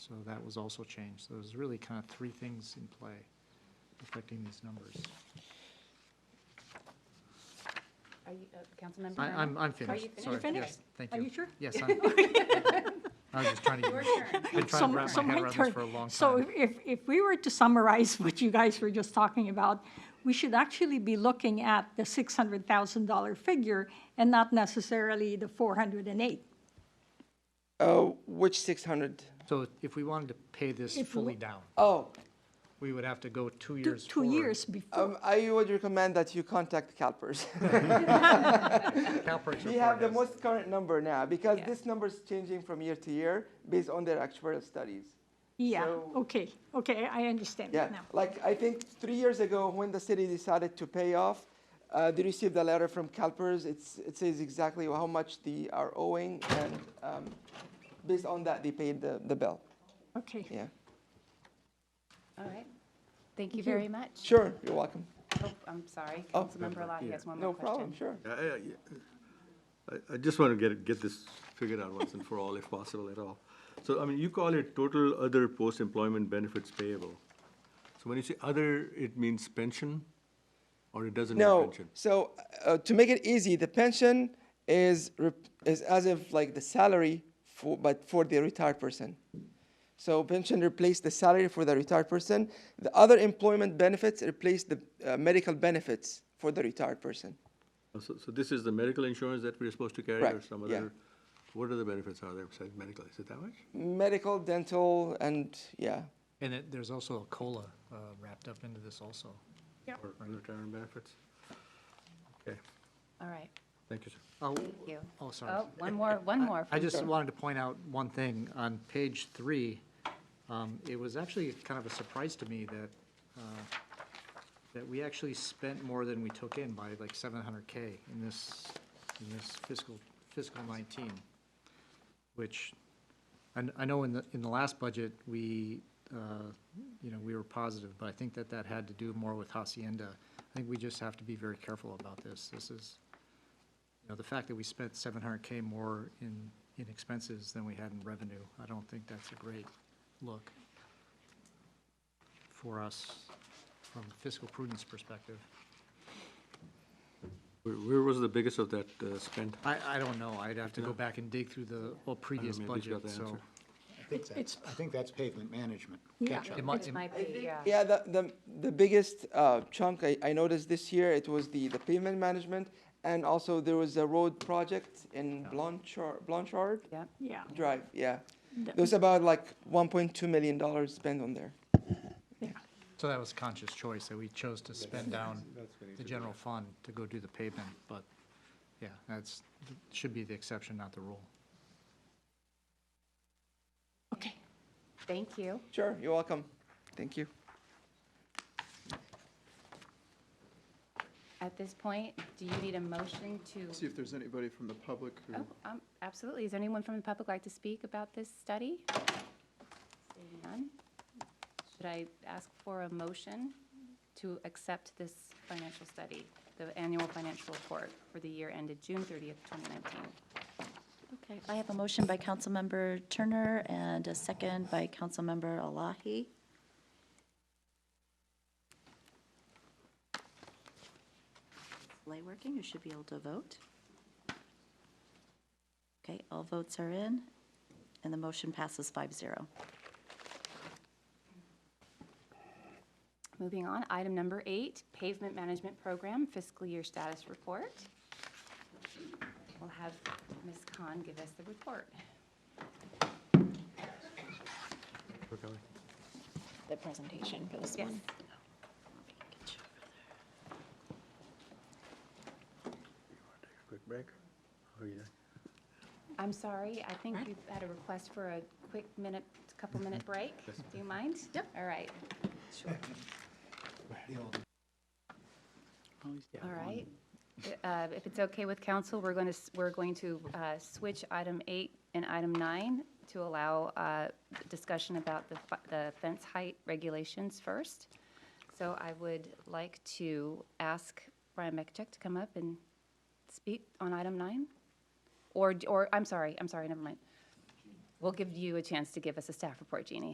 So that was also changed. So there's really kind of three things in play affecting these numbers. Are you, uh, Councilmember? I, Brown? I'm, I'm Are finished. you finished? Sorry. You're finished? Yes, Thank Are you you. sure? Yes, I'm, I was just trying to, Your get- turn. I've been So- trying to wrap so my head my around this turn. for a long So time. if- if, if we were to summarize what you guys were just talking about, we should actually be looking at the $600,000 figure and not necessarily the 408. Uh, which six hundred? So if we wanted to pay this If we- fully down, Oh, we would have to go two Two- years Two forward. years before. um, I would recommend that you contact CalPERS. CalPERS we have the report most current number now because Yeah. this number is changing from year to year based on their actuarial studies. Yeah, so- okay, okay, I understand Yeah, that now. like I think three years ago when the city decided to pay off, uh, they received a letter from CalPERS. It's, it says exactly how much they are owing, and um, based on that, they paid the, the bill. Okay. Yeah. All right. Thank you you. very much. Sure, you're welcome. Oh, I'm sorry, Oh. Councilmember Alahi has one No more question. problem, sure. I- I I- I just want to get, it- get this figured out once and for all, if possible at all. So, I mean, you call it total other post-employment benefits payable. So when you say other, it means pension, or it doesn't mean No, pension? so uh, to make it easy, the pension is, rep- is as if like the salary for, but for the retired person. So pension replaced the salary for the retired person. The other employment benefits replaced the uh, medical benefits for the retired person. Oh, So, so this is the medical insurance that we're supposed to carry, or Correct, some yeah. other? What other benefits are there besides medical? Is it that much? Medical, dental, and yeah, And it, there's also a COLA uh, wrapped up into this also. Or retirement benefits? Okay, All right, thank you, sir. Oh, thank you. oh, sorry. Oh, one more, one more. I from- just wanted to point out one thing. On page three, um, it was actually kind of a surprise to me that, uh, that we actually spent more than we took in by like seven hundred K in this, in this fiscal, fiscal nineteen, which, I, I know in the, in the last budget, we, uh, you know, we were positive, but I think that that had to do more with Hacienda. I think we just have to be very careful about this. This is, you know, the fact that we spent seven hundred K more in, in expenses than we had in revenue, I don't think that's a great look for us from fiscal prudence perspective. Where, where was the biggest of that uh, spent? I, I don't know, I'd have to go back and dig through the well, previous maybe he's got budget, the so. answer. I think that's, I think that's pavement management. Yeah. catch-up. It might, It it- might be, uh, yeah. Yeah, the, the, the biggest uh, chunk I, I noticed this year, it was the, the pavement management, and also there was a road project in Blanchard, Blanchard Yep. Yeah, Drive, yeah. The- There was about like one point two million dollars spent on there. yeah. so that was conscious choice, that we chose to spend down the general fund to go do the pavement, but, yeah, that's, should be the exception, not the rule. Okay. Thank you. Sure, you're welcome. Thank you. At this point, do you need a motion See to? if there's anybody from the public who, Oh, um, absolutely. Is there anyone from the public like to speak about this study? Seeing None? Should I ask for a motion to accept this financial study, the annual financial report for the year ended June 30th, 2019? Okay, I have a motion by Councilmember Turner and a second by Councilmember Alahi. Light working, you should be able to vote. Okay, all votes are in, and the motion passes five zero. Moving on, item number eight, pavement management program fiscal year status report. We'll have Ms. Khan give us the report. The presentation goes Yes. Quick break? Oh, yeah. I'm sorry, I think we've had a request for a quick minute, couple minute break. Do you mind? Yep. All right. Sure. All right. Uh, If it's okay with council, we're going to, we're going to uh, switch item eight and item nine to allow uh, discussion about the fi- the fence height regulations first. So I would like to ask Brian Mekchek to come up and speak on item nine? Or, or, I'm sorry, I'm sorry, never mind. We'll give you a chance to give us a staff report, Jeannie.